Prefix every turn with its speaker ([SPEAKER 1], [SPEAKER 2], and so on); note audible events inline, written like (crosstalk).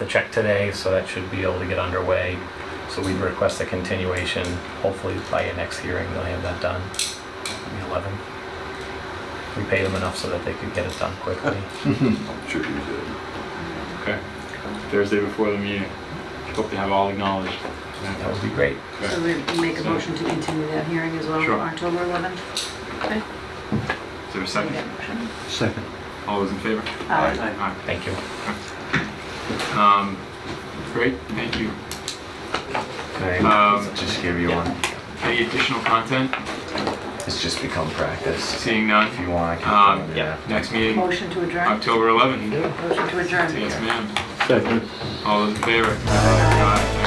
[SPEAKER 1] the check today, so that should be able to get underway. So we'd request a continuation. Hopefully by your next hearing, they'll have that done, the 11th. We paid them enough so that they could get it done
[SPEAKER 2] (laughs)
[SPEAKER 1] quickly.
[SPEAKER 3] Sure you did.
[SPEAKER 4] Okay. Thursday before the meeting. Hope to have all acknowledged.
[SPEAKER 1] That would be great.
[SPEAKER 5] So
[SPEAKER 4] Okay.
[SPEAKER 5] we make a motion to continue that hearing as well,
[SPEAKER 4] Sure.
[SPEAKER 5] October 11th? Okay.
[SPEAKER 4] Is there a second?
[SPEAKER 6] Second.
[SPEAKER 4] All those in favor?
[SPEAKER 5] Aye.
[SPEAKER 4] Aye.
[SPEAKER 1] Thank you.
[SPEAKER 4] Um, Great, thank you. Um,
[SPEAKER 2] Um, just give you one.
[SPEAKER 4] Any additional content?
[SPEAKER 2] It's just become practice.
[SPEAKER 4] Seeing none.
[SPEAKER 2] If you want, I can.
[SPEAKER 4] Um,
[SPEAKER 2] yeah.
[SPEAKER 4] Next meeting,
[SPEAKER 5] Motion to adjourn?
[SPEAKER 4] October 11th.
[SPEAKER 5] Motion to adjourn.
[SPEAKER 4] Yes, ma'am.
[SPEAKER 6] Second.
[SPEAKER 4] All those in favor? Aye.